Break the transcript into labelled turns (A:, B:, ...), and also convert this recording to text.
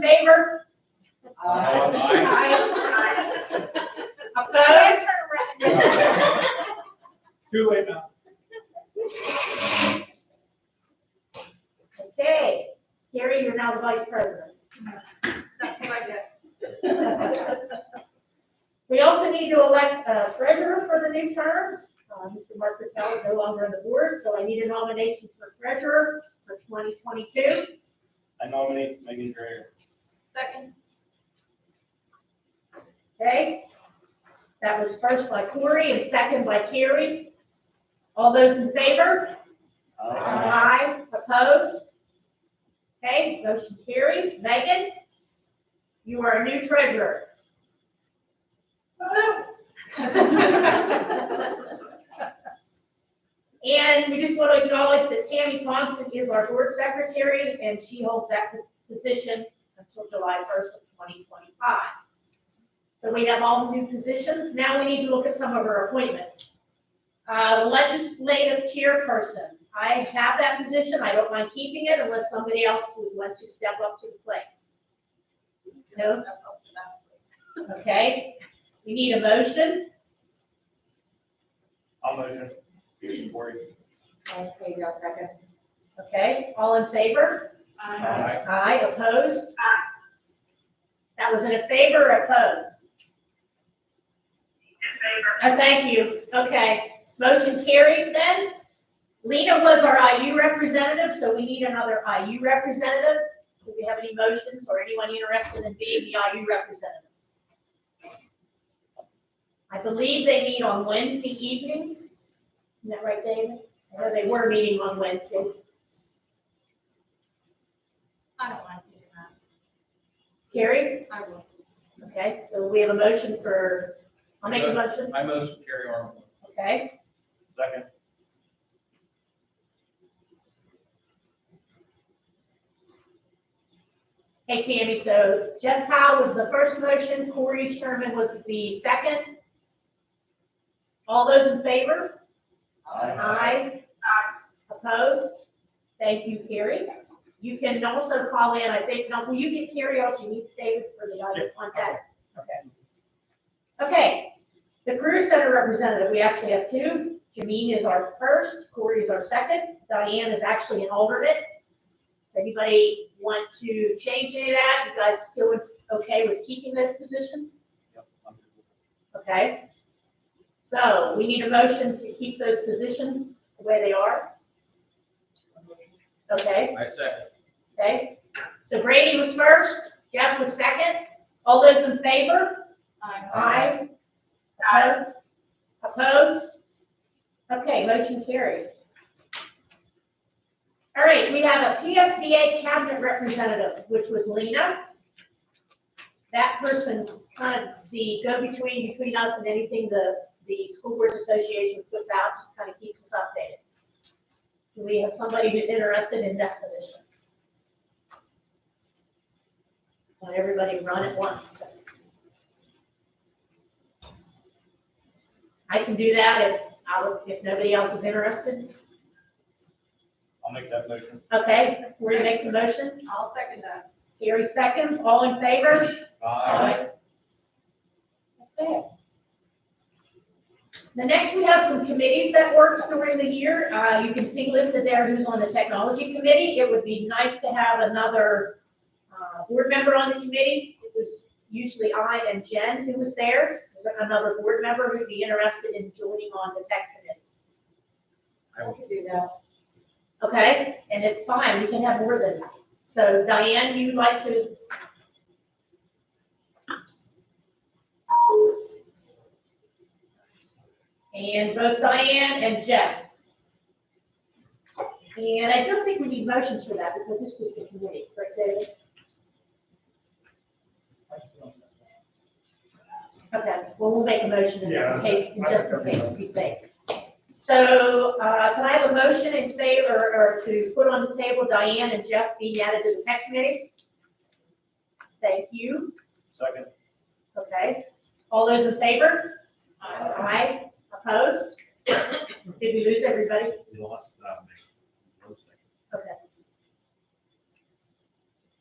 A: favor?
B: Aye.
A: Opposed?
C: Too late now.
A: Okay, Gary, you're now the vice president.
B: That's what I get.
A: We also need to elect a treasurer for the new term. Uh, Mr. Mark Patel is no longer on the board, so I need a nomination for treasurer for 2022.
D: I nominate Megan Dreyer.
B: Second.
A: Okay? That was first by Corey and second by Carrie. All those in favor? Aye. Opposed? Okay, motion carries. Megan, you are a new treasurer. And we just want to acknowledge that Tammy Thompson is our board secretary, and she holds that position until July first of twenty twenty-five. So we have all the new positions. Now we need to look at some of our appointments. Uh, legislative chairperson, I have that position. I don't mind keeping it unless somebody else would want to step up to the plate. No? Okay, we need a motion.
D: I'll motion. Cory.
A: Okay, you second. Okay, all in favor? Aye, opposed? Aye. That was in a favor or opposed? In favor. Oh, thank you, okay. Motion carries then. Lena was our IU representative, so we need another IU representative. Do we have any motions or anyone interested in being the IU representative? I believe they meet on Wednesday evenings. Isn't that right, David? I know they were meeting on Wednesdays.
B: I don't mind doing that.
A: Carrie?
B: I will.
A: Okay, so we have a motion for, I'll make a motion,
C: I motion carry Armstrong.
A: okay?
D: Second.
A: Hey Tammy, so Jeff Powell was the first motion, Corey Sherman was the second. All those in favor? Aye. uh, Opposed? Thank you, Carrie. You can also call in, I think, now, will you get Carrie out, you need David for the audio contact? Okay. Okay, the Career Center representative, we actually have two. Jameen is our first, Corey is our second, Diane is actually an alternate. If Anybody want to change any of that? You guys still okay with keeping those positions?
D: Yep, I'm good with
A: Okay. So we need a motion to keep those positions the way they are. Okay,
C: I second.
A: okay. So Brady was first, Jeff was second. All those in favor? Aye. Opposed? Opposed? Okay, motion carries. All right, we have a PSBA cabinet representative, which was Lena. That person is kind of the go-between between us and anything the, the School Boards Association puts out, just kind of keeps us updated. Do we have somebody who's interested in that position? Let everybody run at once. I can do that if, I would- if nobody else is interested.
D: I'll make that motion.
A: Okay, we're gonna make the motion.
B: I'll second that.
A: Gary seconds, all in favor? Okay. The next, we have some committees that work during the year. Uh, you can see listed there who's on the technology committee. It would be nice to have another, uh, board member on the committee. It was usually I and Jen who was there. Is there another board member who'd be interested in joining on the tech committee?
C: I will.
B: do that.
A: Okay, and it's fine, we can have more than that. So Diane, you would like to? And both Diane and Jeff. And I don't think we need motions for that because it's just a committee, correct, David? Okay, well, we'll make a motion in
E: Yeah,
A: case, in
E: I- I-
A: just in case, to be safe. So, uh, can I have a motion in favor, or to put on the table Diane and Jeff being added to the tax committee? Thank you,
D: Second.
A: okay. All those in favor? Aye. Opposed? Did we lose everybody?
D: You lost that.
A: Okay.